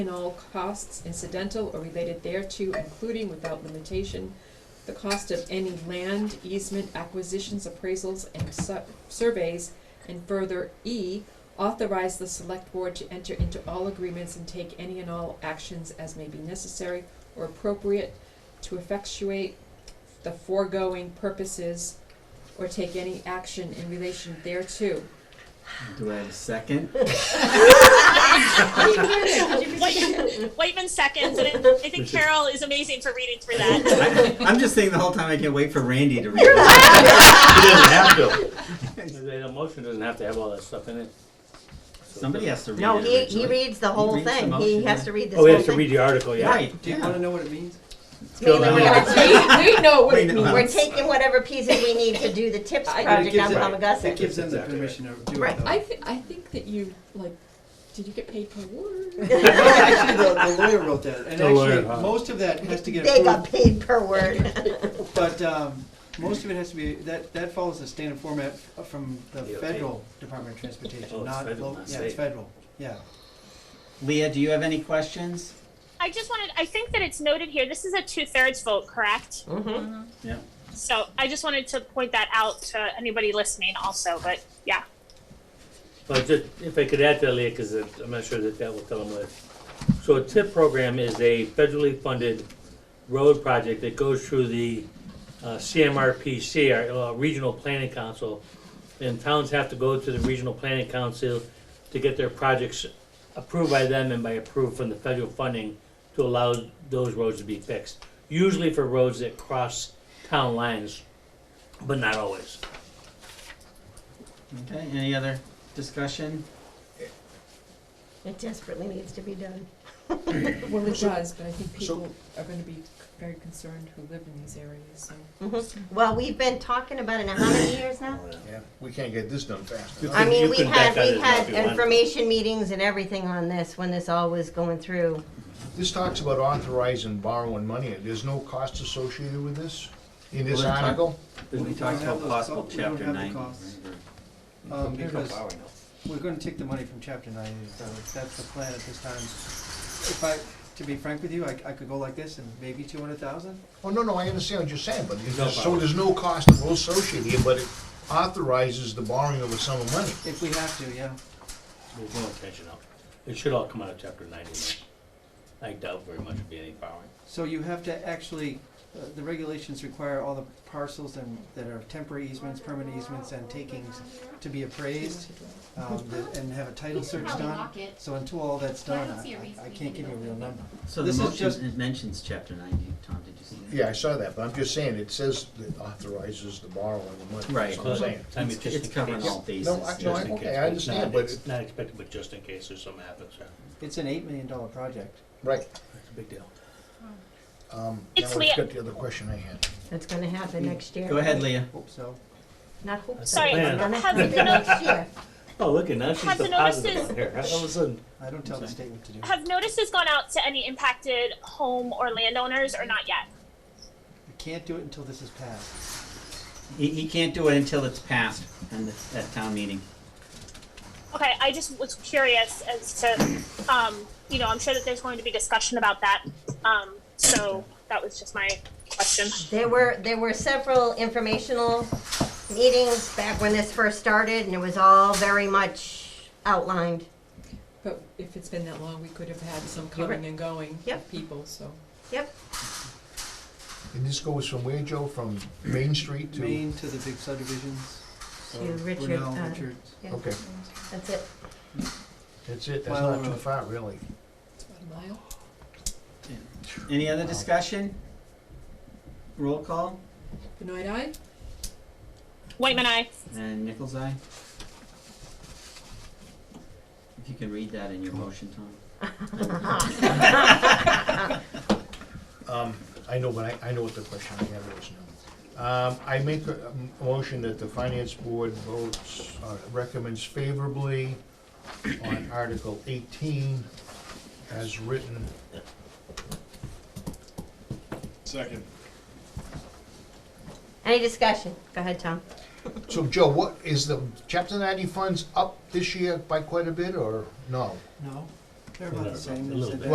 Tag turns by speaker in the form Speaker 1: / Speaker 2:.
Speaker 1: and all costs incidental or related thereto, including without limitation, the cost of any land, easement, acquisitions, appraisals, and su- surveys, and further, E, authorize the select board to enter into all agreements and take any and all actions as may be necessary or appropriate to effectuate the foregoing purposes or take any action in relation thereto.
Speaker 2: Do I have a second?
Speaker 3: Whiteman, Whiteman seconds, and I I think Carol is amazing for reading through that.
Speaker 2: I, I'm just saying the whole time I can't wait for Randy to read it.
Speaker 4: He doesn't have to. The motion doesn't have to have all that stuff in it.
Speaker 2: Somebody has to read
Speaker 5: No,
Speaker 2: it.
Speaker 5: he, he
Speaker 2: originally.
Speaker 5: reads the whole
Speaker 2: reads the
Speaker 5: thing.
Speaker 2: motion,
Speaker 5: He has
Speaker 2: yeah.
Speaker 5: to read this
Speaker 4: Oh,
Speaker 5: whole
Speaker 4: he
Speaker 5: thing.
Speaker 4: has to read the article, yeah.
Speaker 2: Right, yeah.
Speaker 6: know what it means?
Speaker 5: It's mainly
Speaker 4: Go
Speaker 5: what
Speaker 4: down.
Speaker 5: it's-
Speaker 1: we know
Speaker 2: what it We know. means.
Speaker 5: We're taking whatever pieces we need to do the tips
Speaker 1: I-
Speaker 5: project on
Speaker 6: It
Speaker 5: Palmagussit.
Speaker 6: gives them the permission to do
Speaker 5: Right.
Speaker 6: it though.
Speaker 1: I th- I think that you like. Did you get paid per word?
Speaker 6: Actually, the, the lawyer wrote that, and
Speaker 4: The lawyer,
Speaker 6: actually,
Speaker 4: huh?
Speaker 6: most of that has to get
Speaker 5: They got
Speaker 6: approved,
Speaker 5: paid per word.
Speaker 6: but, um, most of it has to be, that, that follows the standard format f- from the
Speaker 4: DOT.
Speaker 6: federal Department of
Speaker 4: Oh,
Speaker 6: Transportation,
Speaker 4: it's
Speaker 6: not,
Speaker 4: federal,
Speaker 6: lo-
Speaker 4: not
Speaker 6: yeah,
Speaker 4: state.
Speaker 6: it's federal, yeah.
Speaker 2: Leah, do you have any questions?
Speaker 3: I just wanted, I think that it's noted here, this is a two-thirds vote, correct?
Speaker 5: Mm-hmm.
Speaker 2: Yeah.
Speaker 3: So I just wanted to point that out to anybody listening also, but yeah.
Speaker 4: Well, just, if I could add to that, Leah, because I'm not sure that that will tell them what. So a TIP program is a federally funded road project that goes through the uh, CMRPC, our uh, Regional Planning Council. And towns have to go to the Regional Planning Council to get their projects approved by them and by approved from the federal funding to allow those roads to be fixed. Usually for roads that cross town lines, but not always.
Speaker 2: Okay, any other discussion?
Speaker 5: It desperately needs to be done.
Speaker 1: Well, it does, but I think
Speaker 6: so-
Speaker 1: people are going to be very concerned who live in these areas. So.
Speaker 5: Well, we've been talking about it now, how many years now?
Speaker 7: Yeah, we can't get this done fast
Speaker 4: You
Speaker 7: enough.
Speaker 5: I
Speaker 4: can-
Speaker 5: mean,
Speaker 4: you
Speaker 5: we
Speaker 4: can
Speaker 5: had,
Speaker 4: back out
Speaker 5: we
Speaker 4: as much
Speaker 5: had
Speaker 4: as you want.
Speaker 5: information meetings and everything on this when this all was going through.
Speaker 7: This talks about authorizing borrowing money, there's no cost associated with this in this
Speaker 2: Well, it's-
Speaker 7: article?
Speaker 2: We talked about
Speaker 6: those
Speaker 2: possible
Speaker 6: costs. We don't
Speaker 2: chapter
Speaker 6: have the
Speaker 2: nine.
Speaker 6: costs. Um, because we're gonna take the money from chapter nine, so that's the plan at this time. If I, to be frank with you, I, I could go like this and maybe two hundred thousand,
Speaker 7: Oh, no, no, I understand what you're saying, but
Speaker 4: No
Speaker 7: there's, so
Speaker 4: borrowing.
Speaker 7: there's no cost associated here, but it authorizes the borrowing of a sum of money.
Speaker 6: if we have to, yeah.
Speaker 4: There's no intention of, it should all come out of chapter ninety. I doubt very much it'd be any borrowing.
Speaker 6: So you have to actually, uh, the regulations require all the parcels and, that are temporary easements, permanent easements, and takings to be appraised, um, that- and have a title search
Speaker 8: probably
Speaker 6: done.
Speaker 8: lock it.
Speaker 6: So until all that's done,
Speaker 8: don't see a
Speaker 6: I-
Speaker 8: reason
Speaker 6: I, I
Speaker 8: we
Speaker 6: can't
Speaker 8: need
Speaker 6: give
Speaker 8: to
Speaker 6: you a
Speaker 8: go
Speaker 6: real
Speaker 8: through
Speaker 6: number.
Speaker 2: So the
Speaker 6: This is just-
Speaker 2: motion, it mentions chapter nine, Do you- Tom, did you see that?
Speaker 7: Yeah, I saw that, but I'm just saying, it says it authorizes the borrowing of money,
Speaker 2: Right.
Speaker 7: that's what I'm saying.
Speaker 4: I mean,
Speaker 2: It's-
Speaker 4: just
Speaker 2: it's
Speaker 4: in
Speaker 2: covering
Speaker 4: case.
Speaker 2: all bases.
Speaker 7: No, I- no,
Speaker 4: Just
Speaker 7: I-
Speaker 4: in case,
Speaker 7: okay, I
Speaker 4: it's
Speaker 7: understand,
Speaker 4: not-
Speaker 7: but
Speaker 4: it's
Speaker 7: it-
Speaker 4: Not expected, but just in case there's something happens, yeah.
Speaker 6: It's an eight million dollar project.
Speaker 7: Right.
Speaker 4: It's a big deal.
Speaker 7: Um, now
Speaker 3: It's
Speaker 7: I've
Speaker 3: Leah.
Speaker 7: got the other question I had.
Speaker 5: That's gonna happen next year.
Speaker 2: Go ahead, Leah.
Speaker 6: Hope so.
Speaker 5: Not hope so.
Speaker 3: Sorry,
Speaker 5: It's
Speaker 4: Yeah.
Speaker 5: gonna
Speaker 3: have
Speaker 5: happen
Speaker 3: the notes,
Speaker 5: next year.
Speaker 4: Oh, look, and now she's
Speaker 3: Have
Speaker 4: the
Speaker 3: the notices-
Speaker 4: positive one here. All of a sudden,
Speaker 6: I don't tell the
Speaker 2: Okay.
Speaker 6: state what to do.
Speaker 3: have notices gone out to any impacted home or landowners or not yet?
Speaker 6: We can't do it until this is passed.
Speaker 2: He, he can't do it until it's passed and the- at town meeting.
Speaker 3: Okay, I just was curious as to, um, you know, I'm sure that there's going to be discussion about that. Um, so that was just my question.
Speaker 5: There were, there were several informational meetings back when this first started, and it was all very much outlined.
Speaker 1: But if it's been that long, we could have had some
Speaker 5: You're right.
Speaker 1: coming and going of
Speaker 5: Yep.
Speaker 1: people. So
Speaker 5: Yep,
Speaker 7: And this goes from where, Joe, from Main Street to?
Speaker 6: Maine to the big subdivisions. So
Speaker 5: To Richard,
Speaker 6: Brunel,
Speaker 5: uh,
Speaker 6: Richards.
Speaker 5: yeah,
Speaker 7: Okay,
Speaker 5: that's it.
Speaker 7: that's it, that's
Speaker 6: Mile
Speaker 7: not too
Speaker 6: Road.
Speaker 7: far, really.
Speaker 1: it's about a mile.
Speaker 2: Any other discussion? Roll call
Speaker 1: Benoit Eye,
Speaker 3: Whiteman, I.
Speaker 2: and Nichols eye. If you can read that in your motion, Tom.
Speaker 7: Um, I know, but I, I know what the question I have is now. Um, I make a um, motion that the finance board votes, uh, recommends favorably on Article eighteen as written.
Speaker 9: Second.
Speaker 5: Any discussion? Go ahead, Tom.
Speaker 7: So Joe, what, is the chapter ninety funds up this year by quite a bit, or no?
Speaker 6: No, they're about the same.
Speaker 4: A little
Speaker 6: They said
Speaker 4: bit.
Speaker 6: that